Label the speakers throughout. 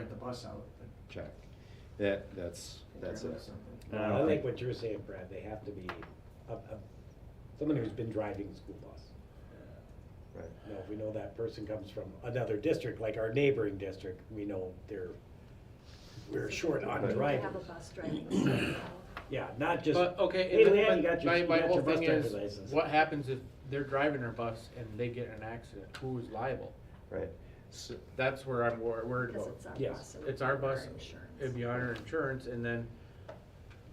Speaker 1: the bus out, but.
Speaker 2: check. That, that's, that's
Speaker 1: Driven or
Speaker 2: it.
Speaker 1: something.
Speaker 2: I don't
Speaker 3: Uh, I like
Speaker 2: think-
Speaker 3: what you're saying, Brad, they have to be, a, a, someone who's been driving the school bus.
Speaker 1: uh,
Speaker 4: Right.
Speaker 3: Now, if we know that person comes from another district, like our neighboring district, we know they're, we're short on
Speaker 4: Right.
Speaker 3: drivers.
Speaker 5: Have a bus driver.
Speaker 3: Yeah, not just,
Speaker 6: But, okay.
Speaker 3: hey,
Speaker 6: and
Speaker 3: Leanne,
Speaker 6: but
Speaker 3: you got your,
Speaker 6: my-
Speaker 3: you
Speaker 6: my
Speaker 3: got
Speaker 6: whole
Speaker 3: your bus
Speaker 6: thing
Speaker 3: driver
Speaker 6: is,
Speaker 3: license.
Speaker 6: What happens if they're driving our bus and they get in an accident? Who's liable?
Speaker 4: Right.
Speaker 6: So That's where I'm wor- worried
Speaker 5: Because
Speaker 6: about.
Speaker 5: it's our
Speaker 3: Yes.
Speaker 5: bus. and
Speaker 6: It's our bus,
Speaker 5: insurance.
Speaker 6: it'd be on our insurance, and then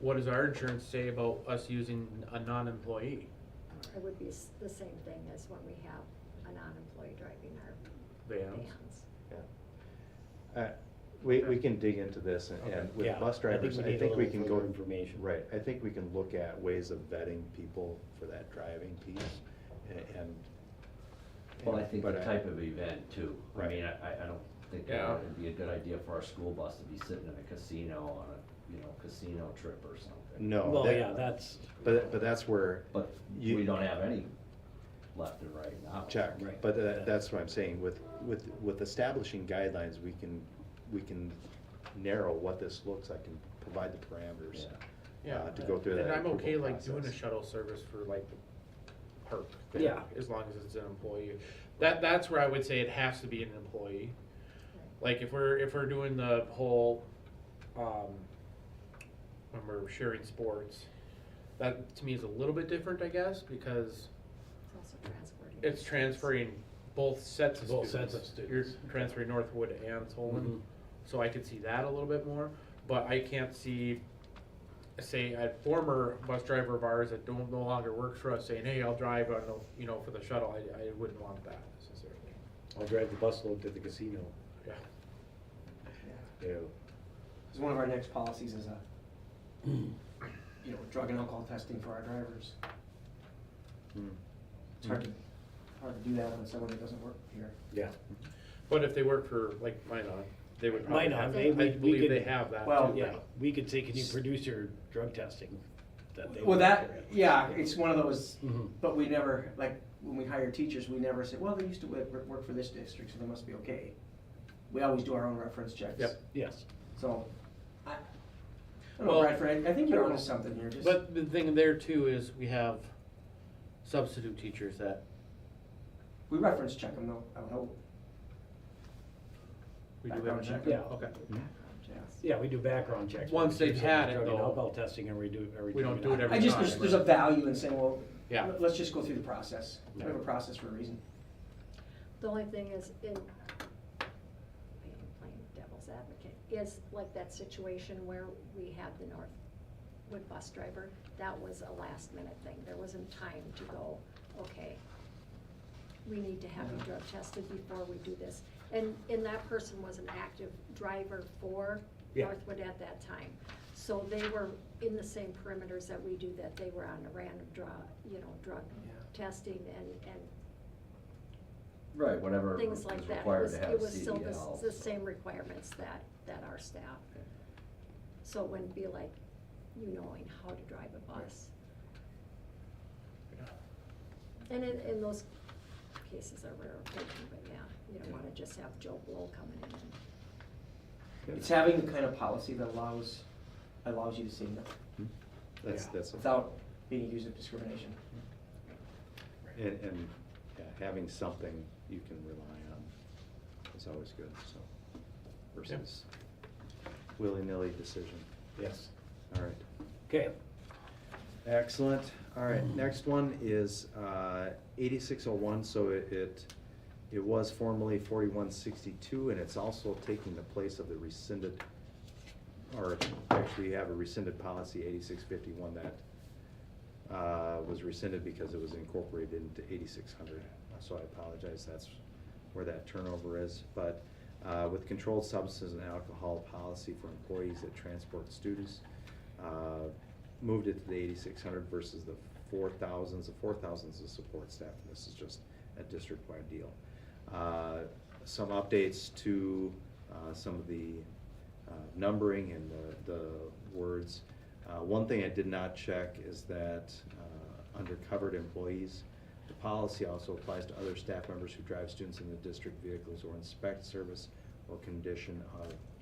Speaker 6: what does our insurance say about us using a non-employee?
Speaker 5: It would be s- the same thing as when we have a non-employee driving our
Speaker 6: Vans?
Speaker 5: vans.
Speaker 4: Uh, We, we can dig into this and- and
Speaker 6: Okay.
Speaker 4: with
Speaker 3: Yeah,
Speaker 4: bus
Speaker 3: I think
Speaker 4: drivers,
Speaker 3: we
Speaker 4: I
Speaker 3: need a
Speaker 4: think we
Speaker 3: little
Speaker 4: can
Speaker 3: further
Speaker 4: go.
Speaker 3: information.
Speaker 4: Right, I think we can look at ways of vetting people for that driving piece a- and.
Speaker 7: Well, I think the
Speaker 4: but
Speaker 7: type of event too. I
Speaker 4: Right.
Speaker 7: mean, I, I- I don't think
Speaker 6: Yeah.
Speaker 7: that it'd be a good idea for our school bus to be sitting in a casino on a, you know, casino trip or something.
Speaker 4: No.
Speaker 3: Well,
Speaker 4: that-
Speaker 3: yeah, that's,
Speaker 4: But, but that's where
Speaker 7: But
Speaker 4: You-
Speaker 7: we don't have any left and right now.
Speaker 4: check,
Speaker 3: Right.
Speaker 4: but tha- that's what I'm saying, with, with, with establishing guidelines, we can, we can narrow what this looks like and provide the parameters.
Speaker 7: Yeah.
Speaker 6: Yeah,
Speaker 4: uh, to go through
Speaker 6: And
Speaker 4: that
Speaker 6: I'm okay
Speaker 4: approval
Speaker 6: like doing a
Speaker 4: process.
Speaker 6: shuttle service for like the park. thing,
Speaker 3: Yeah.
Speaker 6: As long as it's an employee. That, that's where I would say it has to be an employee. Like if we're, if we're doing the whole, um, when we're sharing sports, that to me is a little bit different, I guess, because
Speaker 5: It's also transporting.
Speaker 6: it's transferring both sets of
Speaker 3: Both
Speaker 6: students.
Speaker 3: sets of students. Mm-hmm.
Speaker 6: You're transferring Northwood and Solon, so I could see that a little bit more, but I can't see, say, a former bus driver of ours that don't, no longer works for us saying, hey, I'll drive on the, you know, for the shuttle, I, I wouldn't want that necessarily.
Speaker 3: I'll drive the bus load to the casino.
Speaker 6: Yeah,
Speaker 3: Ew.
Speaker 1: Because one of our next policies is a, you know, drug and alcohol testing for our drivers.
Speaker 4: Hmm.
Speaker 1: It's hard to, hard to do that on someone that doesn't work here.
Speaker 3: Yeah,
Speaker 6: but if they work for, like, Minon, they would probably
Speaker 3: Minon,
Speaker 6: have,
Speaker 3: they-
Speaker 6: I
Speaker 3: we- we
Speaker 6: believe
Speaker 3: could-
Speaker 6: they have that too.
Speaker 1: Well,
Speaker 3: yeah, we could say, can you produce your drug testing? that they
Speaker 1: Well,
Speaker 3: want
Speaker 1: that,
Speaker 3: to-
Speaker 1: yeah, it's one of those,
Speaker 3: Mhm.
Speaker 1: but we never, like, when we hire teachers, we never say, well, they used to work, work for this district, so they must be okay. We always do our own reference checks.
Speaker 6: Yep.
Speaker 3: Yes,
Speaker 1: So, I, I don't know,
Speaker 6: Well,
Speaker 1: Bradford, I I think
Speaker 6: I
Speaker 1: you're
Speaker 6: don't
Speaker 1: onto
Speaker 6: know.
Speaker 1: something here, just.
Speaker 6: But the thing there too is we have substitute teachers that
Speaker 1: We reference check them though, I would hope.
Speaker 6: we do have.
Speaker 1: Background check.
Speaker 3: Yeah.
Speaker 6: Okay.
Speaker 1: Yeah.
Speaker 3: yeah, we do background checks.
Speaker 6: Once
Speaker 3: We do
Speaker 6: they've had it,
Speaker 3: Drug and
Speaker 6: though,
Speaker 3: alcohol testing, and we do, or we do.
Speaker 6: we don't do it every
Speaker 1: I just,
Speaker 6: time,
Speaker 1: there's, there's a
Speaker 6: right.
Speaker 1: value in saying, well,
Speaker 6: Yeah.
Speaker 1: let- let's just go through the process. We have a
Speaker 3: Yeah.
Speaker 1: process for a reason.
Speaker 5: The only thing is, in, being plain devil's advocate, is like that situation where we had the Northwood bus driver, that was a last minute thing, there wasn't time to go, okay, we need to have you drug tested before we do this. And, and that person was an active driver for
Speaker 3: Yeah.
Speaker 5: Northwood at that time. So they were in the same perimeters that we do, that they were on a random draw, you know, drug
Speaker 1: Yeah.
Speaker 5: testing and, and
Speaker 7: Right, whatever
Speaker 5: things
Speaker 7: is
Speaker 5: like that. It
Speaker 7: required
Speaker 5: was-
Speaker 7: to have
Speaker 5: It was still the, s-
Speaker 7: CDL.
Speaker 5: the same requirements that, that our staff. So it wouldn't be like you knowing how to drive a bus. And in, in those cases are rare occasion, but yeah, you don't wanna just have Joe Blow coming in and.
Speaker 1: It's having the kind of policy that allows, allows you to say no
Speaker 4: That's,
Speaker 3: Yeah.
Speaker 4: that's.
Speaker 1: without being accused of discrimination.
Speaker 4: And, and yeah, having something you can rely on is always good, so, versus willy-nilly decision.
Speaker 3: Yes,
Speaker 4: All right,
Speaker 3: okay.
Speaker 4: excellent. All right, next one is uh, 8601, so it- it, it was formerly 4162, and it's also taking the place of the rescinded, or actually, you have a rescinded policy, 8651, that uh, was rescinded because it was incorporated into 8600. So I apologize, that's where that turnover is. But uh, with controlled substances and alcohol policy for employees that transport students, uh, moved it to the 8600 versus the 4000s. The 4000s is support staff, and this is just a district-wide deal. Uh, Some updates to uh, some of the uh, numbering and the, the words. Uh, one thing I did not check is that, uh, under covered employees, the policy also applies to other staff members who drive students in the district vehicles or inspect service or condition of